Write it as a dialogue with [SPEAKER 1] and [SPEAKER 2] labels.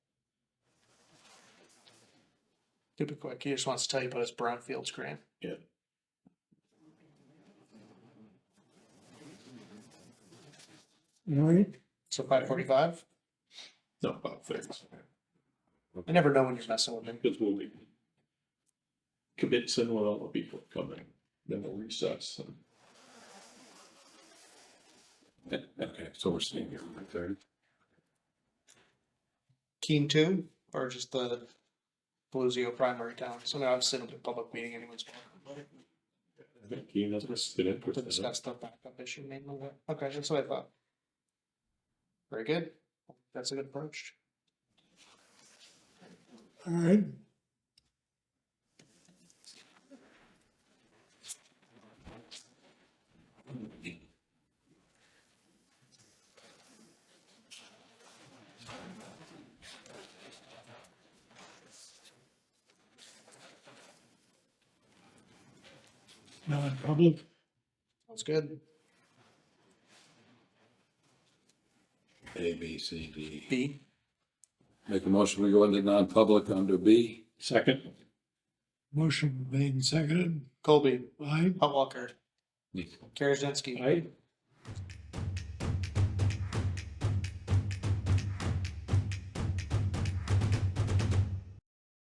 [SPEAKER 1] Could be quick. He just wants to tell you about his brownfields grant.
[SPEAKER 2] Yeah.
[SPEAKER 3] All right,
[SPEAKER 1] So five forty-five.
[SPEAKER 2] No, about thirty.
[SPEAKER 1] I never know when you're messing with him.
[SPEAKER 2] Because we'll be convincing when all the people come in, then we'll recess.
[SPEAKER 4] Okay, so we're seeing here, thirty.
[SPEAKER 1] Keen two or just the Belusio primary town. So now I've sitting in a public meeting anyone's
[SPEAKER 2] I think Keen has listed interest
[SPEAKER 1] to
[SPEAKER 2] in it.
[SPEAKER 1] discuss the backup issue mainly. Okay, that's what I thought. Very good. That's a good approach.
[SPEAKER 3] all right. Non-public,
[SPEAKER 1] Sounds good.
[SPEAKER 4] A, B, C, D.
[SPEAKER 1] B.
[SPEAKER 4] Make a motion, we go into non-public under B.
[SPEAKER 2] Second,
[SPEAKER 3] motion made and seconded,
[SPEAKER 1] Colby,
[SPEAKER 3] aye,
[SPEAKER 1] Hot Walker,
[SPEAKER 4] Yeah.
[SPEAKER 1] Karazinski,
[SPEAKER 2] I,